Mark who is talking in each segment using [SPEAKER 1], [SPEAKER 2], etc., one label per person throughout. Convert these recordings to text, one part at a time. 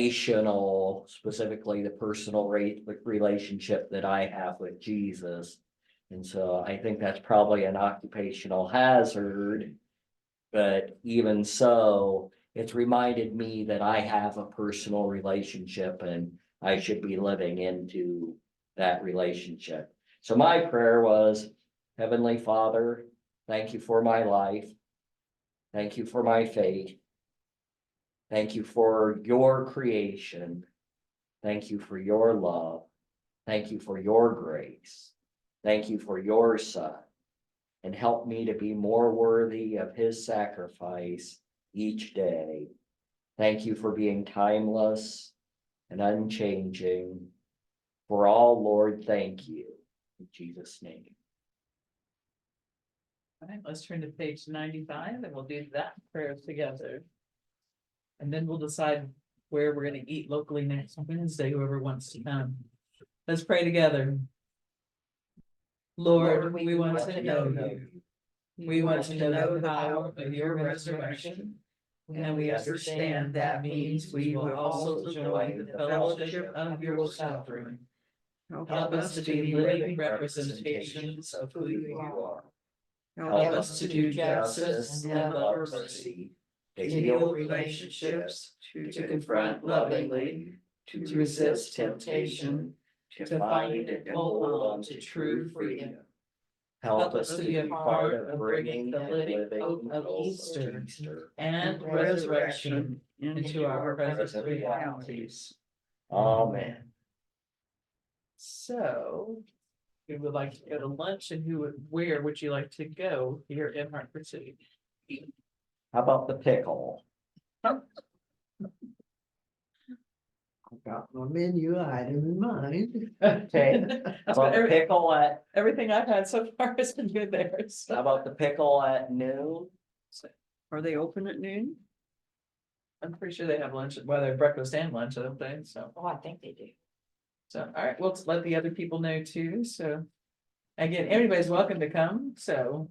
[SPEAKER 1] relational, specifically the personal rate, like relationship that I have with Jesus. And so I think that's probably an occupational hazard. But even so, it's reminded me that I have a personal relationship and I should be living into that relationship. So my prayer was, Heavenly Father, thank you for my life. Thank you for my faith. Thank you for your creation. Thank you for your love. Thank you for your grace. Thank you for your son. And help me to be more worthy of his sacrifice each day. Thank you for being timeless and unchanging. For all, Lord, thank you. In Jesus' name.
[SPEAKER 2] All right, let's turn to page ninety-five and we'll do that prayer together. And then we'll decide where we're gonna eat locally next Wednesday, whoever wants to come. Let's pray together. Lord, we want to know you. We want to know the power of your resurrection. And we understand that means we will also enjoy the fellowship of your suffering. Help us to be living representations of who you are.
[SPEAKER 1] Help us to do justice and love mercy. To heal relationships,
[SPEAKER 2] relationships, to confront lovingly, to resist temptation,
[SPEAKER 1] to find and hold on to true freedom. Help us to be a part of bringing the living hope of Easter.
[SPEAKER 2] and resurrection into our present realities.
[SPEAKER 1] Amen.
[SPEAKER 2] So, who would like to go to lunch and who, would- where would you like to go here in Hartford City?
[SPEAKER 1] How about the pickle?
[SPEAKER 3] Got my menu item in mind.
[SPEAKER 1] Okay. How
[SPEAKER 2] That's
[SPEAKER 1] about
[SPEAKER 2] what
[SPEAKER 1] the
[SPEAKER 2] every-
[SPEAKER 1] pickle at,
[SPEAKER 2] Everything I've had so far has been good there, so.
[SPEAKER 1] how about the pickle at noon?
[SPEAKER 3] Are they open at noon?
[SPEAKER 2] I'm pretty sure they have lunch, well, they have breakfast and lunch, I don't think, so.
[SPEAKER 4] Oh, I think they do.
[SPEAKER 2] So, all right, we'll let the other people know too, so. Again, everybody's welcome to come, so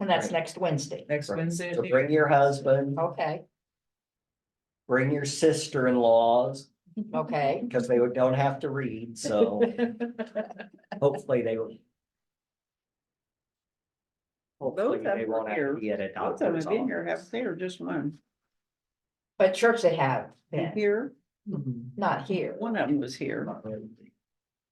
[SPEAKER 4] And that's
[SPEAKER 1] Right.
[SPEAKER 4] next Wednesday.
[SPEAKER 2] next
[SPEAKER 1] Right.
[SPEAKER 2] Wednesday.
[SPEAKER 1] So bring your husband,
[SPEAKER 4] Okay,
[SPEAKER 1] bring your sister-in-laws,
[SPEAKER 4] okay.
[SPEAKER 1] because they don't have to read, so hopefully they will. Hopefully
[SPEAKER 3] of
[SPEAKER 1] they
[SPEAKER 3] them
[SPEAKER 1] won't have
[SPEAKER 3] here-
[SPEAKER 1] to be at a
[SPEAKER 3] Both of them
[SPEAKER 1] doctor's
[SPEAKER 3] have been here,
[SPEAKER 1] office.
[SPEAKER 3] haven't they, or just one?
[SPEAKER 4] But church they have
[SPEAKER 3] And
[SPEAKER 4] been,
[SPEAKER 3] Here,
[SPEAKER 2] Mhm.
[SPEAKER 4] not here.
[SPEAKER 3] one of them was here.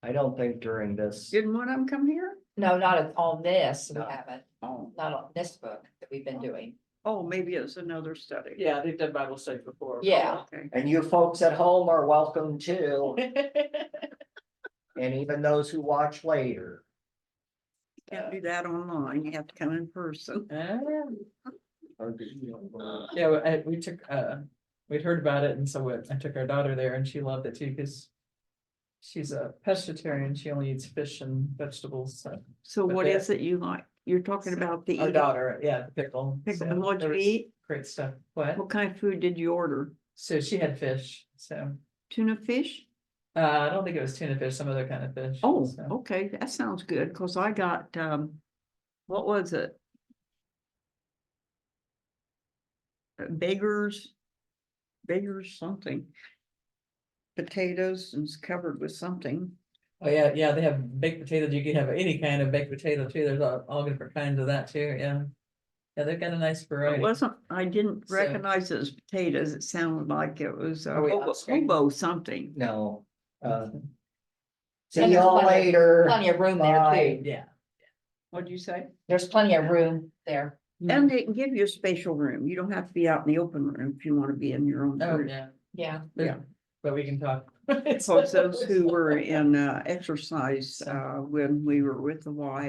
[SPEAKER 1] I don't think during this,
[SPEAKER 3] Didn't one of them come here?
[SPEAKER 4] No, not at- on this, we
[SPEAKER 1] No.
[SPEAKER 4] haven't,
[SPEAKER 3] Oh,
[SPEAKER 4] not on this book that we've been doing.
[SPEAKER 3] oh, maybe it's another study.
[SPEAKER 2] Yeah, they've done Bible study before.
[SPEAKER 4] Yeah.
[SPEAKER 3] Okay.
[SPEAKER 1] and you folks at home are welcome too,
[SPEAKER 2] Yeah,
[SPEAKER 1] and even those who watch later.
[SPEAKER 3] Can't do that online. You have to come in person.
[SPEAKER 2] Yeah, we- I, we took, uh, we'd heard about it and so we- I took our daughter there and she loved it too, because. She's a pescatarian, she only eats fish and vegetables, so.
[SPEAKER 3] So
[SPEAKER 2] But
[SPEAKER 3] what
[SPEAKER 2] they-
[SPEAKER 3] is it you like? You're talking about the
[SPEAKER 2] Our
[SPEAKER 3] eat-
[SPEAKER 2] daughter, yeah, the pickle. so
[SPEAKER 3] pickle. What'd
[SPEAKER 2] there
[SPEAKER 3] you
[SPEAKER 2] was
[SPEAKER 3] eat?
[SPEAKER 2] Great stuff, what?
[SPEAKER 3] What kind of food did you order?
[SPEAKER 2] So she had fish, so,
[SPEAKER 3] Tuna fish?
[SPEAKER 2] uh, I don't think it was tuna fish, some other kind of fish.
[SPEAKER 3] Oh,
[SPEAKER 2] so.
[SPEAKER 3] okay, that sounds good, cause I got, um, what was it? Uh, Beggars, beggars something. Potatoes and it's covered with something.
[SPEAKER 2] Oh, yeah, yeah, they have baked potatoes. You can have any kind of baked potato too. There's all, all different kinds of that too, yeah. Yeah, they've got a nice
[SPEAKER 3] It
[SPEAKER 2] variety.
[SPEAKER 3] wasn't, I didn't
[SPEAKER 2] So-
[SPEAKER 3] recognize it as potatoes. It sounded like Oh, it was a
[SPEAKER 2] Are we on
[SPEAKER 3] hobo
[SPEAKER 2] screen?
[SPEAKER 3] hobo something.
[SPEAKER 1] No, uh, see
[SPEAKER 4] And there's
[SPEAKER 1] y'all
[SPEAKER 4] plenty-
[SPEAKER 1] later.
[SPEAKER 4] Plenty of room there
[SPEAKER 1] Bye.
[SPEAKER 4] too.
[SPEAKER 2] Yeah,
[SPEAKER 3] What'd you say?
[SPEAKER 4] There's plenty of room there.
[SPEAKER 3] And they can give you a spatial room. You don't have to be out in the open room if you wanna be in your own
[SPEAKER 2] oh,
[SPEAKER 3] room.
[SPEAKER 2] yeah,
[SPEAKER 4] Yeah,
[SPEAKER 3] Yeah.
[SPEAKER 2] but we can talk.
[SPEAKER 3] Of course, those who were in uh, exercise uh, when we were with the Y